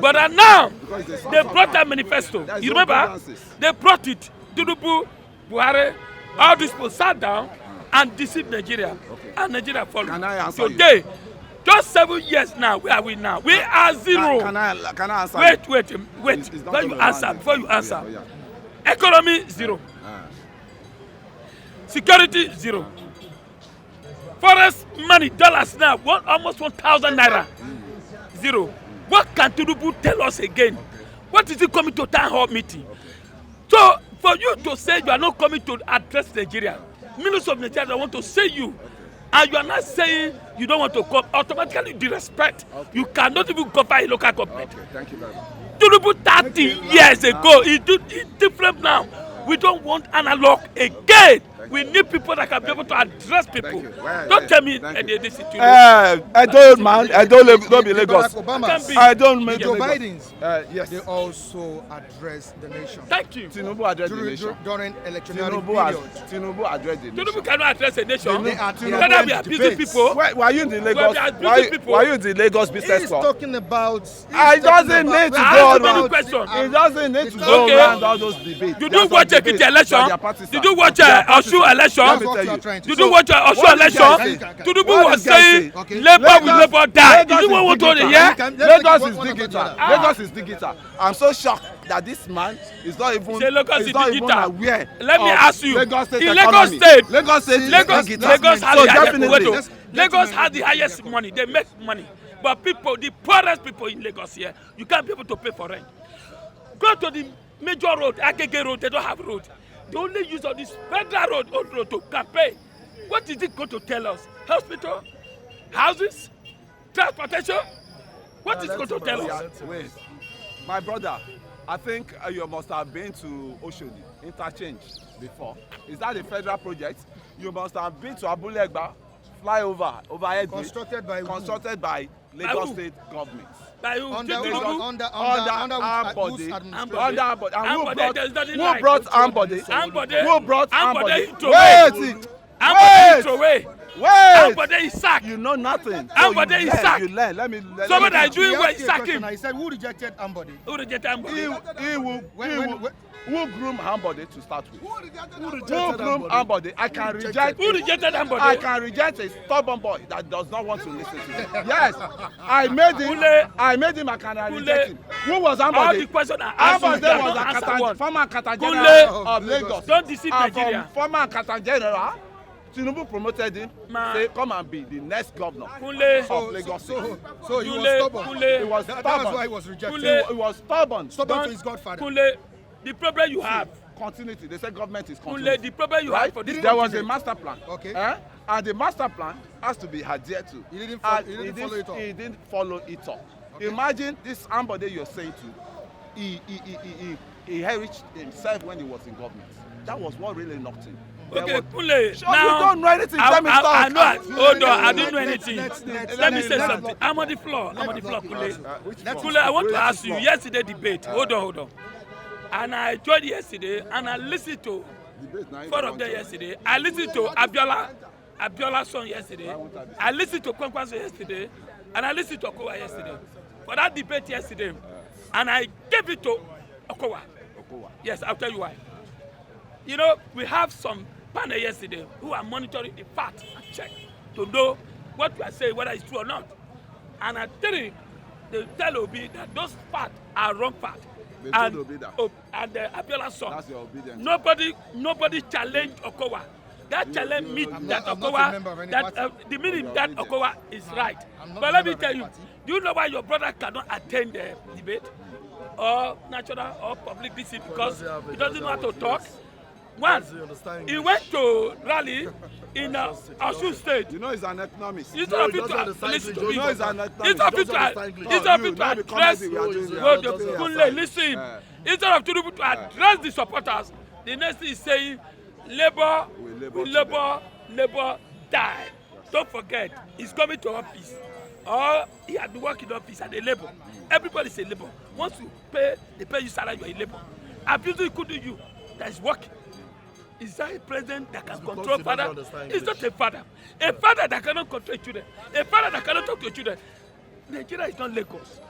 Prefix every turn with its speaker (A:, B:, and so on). A: But uh, now, they brought that manifesto. You remember? They brought it. Tinubu, Buhari, all these people sat down and deceived Nigeria.
B: Okay.
A: And Nigeria followed.
B: Can I answer you?
A: Today, just seven years now, where are we now? We are
B: Can,
A: zero.
B: can I can I answer? you?
A: wait, wait, um, wait.
B: It's- it's not
A: Before you
B: gonna
A: answer,
B: happen.
A: before you
B: Yeah,
A: answer.
B: yeah.
A: Economy, zero.
B: Ah,
A: Security, zero. Forest money, dollars now, one, almost 1,000 naira. Zero. What can Tinubu tell us again? What is he coming to town hall meeting? So, for you to say you are not coming to address Nigeria, millions of Nigerians they want to say you, and you are not saying you don't want to come, automatically disrespect. You cannot even govern a local government.
B: Okay, thank you very much.
A: Tinubu thirty
B: Okay,
A: years
B: now-
A: ago e do e different now we don want analog again we need people that can be able to address people
B: you. Well,
A: don
B: yeah,
A: tell me
B: thank
A: eh,
B: you.
A: the the situation.
C: Uh, I don't man. I don't live, don't be Lagos.
D: Barack
A: Can be.
D: Obama,
C: I don't make
D: Joe
C: Lagos.
D: Biden's,
C: Uh, yes.
D: they also address the nation
A: thank you
C: Tinubu address the
D: during,
C: nation.
D: during electionary
C: Tinubu
D: period.
C: has Tinubu address the
A: tinubu
C: nation.
A: cannot address a nation
D: They are- Tinubu
A: whether we are
D: and
A: busy
D: debates.
A: people
C: Why, why are you in the Lagos?
A: are busy
C: Why,
A: people.
C: why are you in the Lagos business
D: He's
C: club?
D: talking about. he's
C: Ah, it
D: talking
C: doesn't
D: about-
C: need to
D: I
C: go
D: asked
C: on.
D: many questions.
C: He doesn't need to go
A: Okay.
C: around all those debates.
A: you
C: There are
A: do
C: some
A: watch
C: debates
A: ekiti
C: that
A: election
C: their parties
A: you
C: are-
A: do watch
C: their
A: uh,
C: parties
A: osun
C: are-
D: That's
C: me
A: election
C: tell
D: what
C: you.
D: you are trying to
A: you
D: say.
A: do watch uh, osun
C: what this guy
A: election
C: say?
A: tinubu
C: What
A: was
C: this guy
A: saying
C: say?
D: Okay.
A: labour will
C: Lagos-
A: labour die
C: Lagos
A: you
C: is
A: know what we
C: digital.
A: dey hear
D: Can- let's
C: Lagos
D: take
C: is
D: one after the
C: digital.
D: other.
A: Ah.
C: Lagos is digital. I'm so shocked that this man is not even
A: Say Lagos
C: is
A: is
C: not even
A: digital.
C: aware.
A: Let me
C: of
A: ask you,
C: Lagos state
A: in Lagos
C: economy.
A: state-
C: Lagos state is
A: lagos
C: digital.
A: lagos has
C: so
A: the highest
C: definitely,
A: wedo lagos has the highest money they make money but people the poorest people in lagos here you can't be able to pay for rent go to the major road agege road they don't have road they only use all this federal road old road to campaign what is it go to tell us hospital houses transportation what is it go to tell us
C: Wait, my brother, I think uh, you must have been to Oshodi interchange before. Is that a federal project? You must have been to Abulegba flyover overhead. bridge,
D: Constructed by who?
C: constructed by
A: By
C: Lagos
A: who?
C: state government.
A: by who
D: Under-
A: tinubu
D: under- under which-
C: arm
D: whose
C: body,
D: administration?
C: under arm body, and who
A: Ambode,
C: brought
A: there's nothing
C: who
A: like-
C: brought Ambode?
A: Ambode-
C: Who brought
A: Ambode
C: Ambode?
A: you throw away.
C: Wait,
A: ambode is
C: wait,
A: throw away
C: wait.
A: ambode is sack
C: You know nothing. So
A: Ambode
C: you
A: is
C: learn,
A: sack.
C: You learn. Let me. Let
A: Somebody
C: me
A: that
C: teach
A: do
C: you.
A: it
D: He
A: when
D: asked
A: he
D: you a
A: sack
D: question.
A: him.
D: I said, who rejected Ambody?
A: who reject ambode.
C: he, he will, he
D: When-
C: will,
D: when- when-
C: who groom Ambode to start with? Who
D: Who
C: groom Ambode? I can reject.
A: who rejected ambode.
C: I can reject a stubborn boy that does not want to listen to me. Yes, I made him.
A: Kule.
C: I made him. I can I
A: Kule.
C: reject him. Who was
A: all the
C: Ambode?
A: questions are
C: Ambode
A: answered.
C: was
A: Don't
C: a
A: answer
C: Kata,
A: one.
C: former Kata
A: Kule.
C: general of
D: Of
C: Lagos.
D: Oh, Lagos.
A: Don't deceive
C: And from
A: Nigeria.
C: Former Kata general. Tinubu promoted him.
A: Ma.
C: Say, come and be the next governor
A: Kule.
C: of Lagos.
D: So, so he was
A: Kule,
D: stubborn.
A: Kule.
C: He was
D: That, that was
C: stubborn.
D: why he was rejected.
C: He, wa- he was stubborn.
D: Stubborn to his godfather.
A: Kunle, the problem you have,
C: continuity they say government is
A: Kunle,
C: continuity
A: the problem you have for this
C: right there was a
A: continent.
C: master plan
D: Okay.
C: eh? and the master plan has to be adhered to
D: He didn't fol-
C: And
D: he didn't
C: he
D: follow it up.
C: he didn't follow it up okay. imagine this ambode you're saying to he he he he he he enriched himself when he was in government that was what really knocked him There
A: Okay,
C: was-
A: Kunle,
C: Sure,
A: now
C: you don't know anything
A: I,
C: let me
A: I,
C: talk
A: I know. I, hold on, I don't know
D: Let- let-
A: anything.
D: let's- let's-
A: Let me
D: let's-
A: say
D: let's
A: something.
D: block
A: I'm on the floor. I'm on the floor,
C: Uh,
A: Kunle.
C: which
A: Kunle, I want to
C: Which
A: ask you.
C: floor?
A: Yesterday
C: Uh,
A: debate. Hold on, hold on. And I joined yesterday, and I listened to
B: debate na
A: four of them yesterday. I listened to Abiola, Abiola's son yesterday. I listened to Kwankwa's son yesterday, and I listened to Okowa yesterday. For that debate yesterday, and I gave it to Okowa.
C: Okowa.
A: Yes, I'll tell you why. You know, we have some panel yesterday who are monitoring the fact and check to know what we are saying, whether it's true or not. And at three, they tell Obi that those facts are wrong facts.
B: They
A: And,
B: told Obi that.
A: Ob- and uh, Abiola son.
B: That's your obedience.
A: Nobody, nobody challenged Okowa. That challenge
B: you-
A: meet
B: I'm
A: that
D: not- I'm not a member of
A: Okowa,
D: any
A: that uh,
D: party.
A: the meaning
B: Your
A: that
B: obedience.
A: Okowa is right.
D: I'm not
A: But
D: a
A: let me
D: member
A: tell
D: of any
A: you,
D: party.
A: do you know why your brother cannot attend the debate or national or public visit because
E: doesn't have a-
A: he doesn't know how to
E: doesn't
A: talk?
E: have a
A: One,
E: Doesn't understand
A: he
E: English.
A: went to rally in uh, Osun State.
B: You know he's an economist.
A: Instead of
E: he
A: you
E: doesn't
A: to
E: understand
A: listen to
E: English.
A: me,
E: No, he's
B: an economist.
A: instead of
E: He
A: you
E: doesn't
A: to
E: understand English.
A: instead of
B: No,
A: you
B: you, now
A: to
B: we come
A: address
B: here, we are doing
E: that.
A: Well, the
E: Doesn't
A: Kunle,
B: understand.
A: listen.
B: Eh.
A: Instead of Tinubu to address the supporters, the next thing is saying, Labour,
B: We labour together."
A: we Labour, Labour die. Don't forget, he's coming to office. Or he had been working in office and a labour. Everybody is a labour. Once you pay, they pay you salary, you're a labour. Abusing couldn't you that is working. Is that a president that can
E: because
A: control
E: he doesn't
A: father?
E: understand
A: It's
E: English.
A: not a father. A father that cannot control children. A father that cannot talk to children. Nigeria is not Lagos.